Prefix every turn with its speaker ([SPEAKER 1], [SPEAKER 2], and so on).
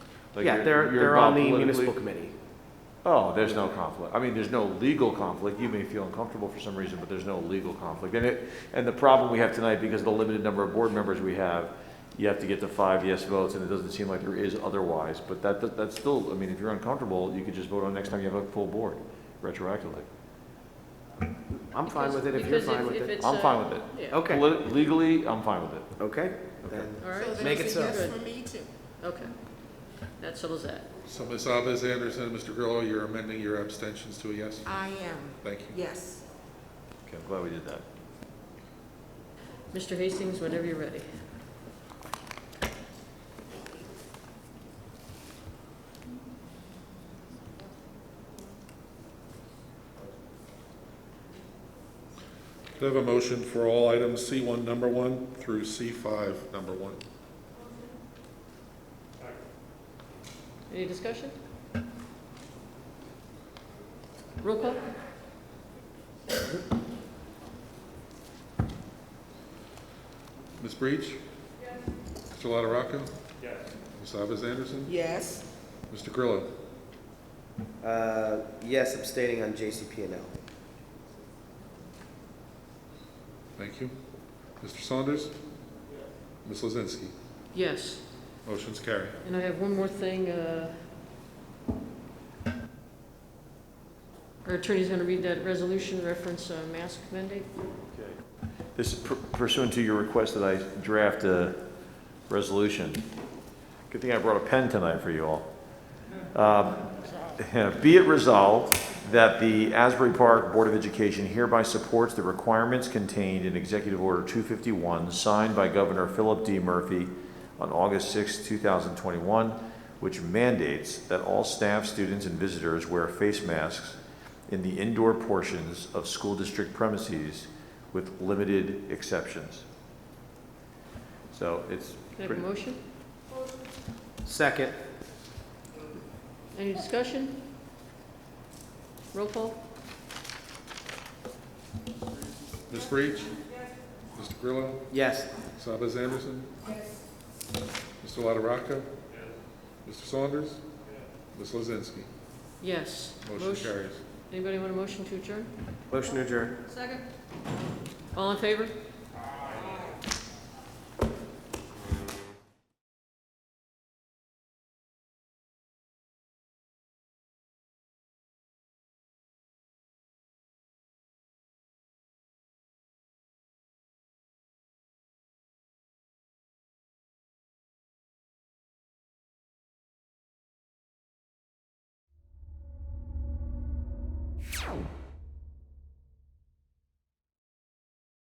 [SPEAKER 1] Like,
[SPEAKER 2] Yeah,
[SPEAKER 1] you're-
[SPEAKER 2] they're,
[SPEAKER 1] you're
[SPEAKER 2] they're
[SPEAKER 1] involved
[SPEAKER 2] on the
[SPEAKER 1] politically?
[SPEAKER 2] municipal committee.
[SPEAKER 1] Oh, there's no conflict. I mean, there's no legal conflict. You may feel uncomfortable for some reason, but there's no legal conflict. And it, and the problem we have tonight, because of the limited number of board members we have, you have to get to five yes votes, and it doesn't seem like there is otherwise. But that, that- that's still, I mean, if you're uncomfortable, you could just vote on next time you have a full board retroactively.
[SPEAKER 2] I'm fine with it if you're
[SPEAKER 3] Because
[SPEAKER 2] fine
[SPEAKER 3] if-
[SPEAKER 2] with
[SPEAKER 3] if
[SPEAKER 2] it.
[SPEAKER 3] it's
[SPEAKER 1] I'm
[SPEAKER 3] a-
[SPEAKER 1] fine with it.
[SPEAKER 3] yeah.
[SPEAKER 2] Okay,
[SPEAKER 1] Polit- Legally, I'm fine with it.
[SPEAKER 2] okay.
[SPEAKER 1] Okay.
[SPEAKER 2] then.
[SPEAKER 3] All
[SPEAKER 4] So
[SPEAKER 3] right,
[SPEAKER 2] Make
[SPEAKER 4] there's
[SPEAKER 2] it
[SPEAKER 4] a
[SPEAKER 2] so.
[SPEAKER 4] yes for me too.
[SPEAKER 3] okay. That settles that.
[SPEAKER 5] So Ms. Alves Anderson, and Mr. Grillo, you're amending your abstentions to a yes?
[SPEAKER 4] I am,
[SPEAKER 5] Thank you.
[SPEAKER 4] yes.
[SPEAKER 1] Okay, I'm glad we did that.
[SPEAKER 3] Mr. Hastings, whenever you're ready.
[SPEAKER 5] Do I have a motion for all items C1, number one, through C5, number one?
[SPEAKER 3] Any discussion? Roll call?
[SPEAKER 5] Ms. Breach? Yes. Mr. LaRocco? Yes. Ms. Alves Anderson?
[SPEAKER 4] Yes,
[SPEAKER 5] Mr. Grillo?
[SPEAKER 2] Uh, Yes, abstaining on JCP&L.
[SPEAKER 5] Thank you. Mr. Saunders? Ms. Lozinski?
[SPEAKER 3] Yes.
[SPEAKER 5] Motion's carried.
[SPEAKER 3] And I have one more thing. uh, Our attorney's going to read that resolution reference uh, mask mandate.
[SPEAKER 1] This is pur- pursuant to your request that I draft a resolution. Good thing I brought a pen tonight for you all. Um, Be it resolved that the Asbury Park Board of Education hereby supports the requirements contained in Executive Order 251, signed by Governor Philip D. Murphy on August 6, 2021, which mandates that all staff, students, and visitors wear face masks in the indoor portions of school district premises with limited exceptions. So it's,
[SPEAKER 3] Can I have a motion?
[SPEAKER 2] Second,
[SPEAKER 3] Any discussion? Roll call?
[SPEAKER 5] Ms. Breach? Mr. Grillo?
[SPEAKER 2] yes.
[SPEAKER 5] Ms. Alves Anderson? Yes. Mr. LaRocco? Yes. Mr. Saunders? Yes. Ms. Lozinski?
[SPEAKER 3] Yes.
[SPEAKER 5] Motion carries.
[SPEAKER 3] Anybody want a motion to adjourn?
[SPEAKER 2] Motion adjourned.
[SPEAKER 3] Second. All in favor?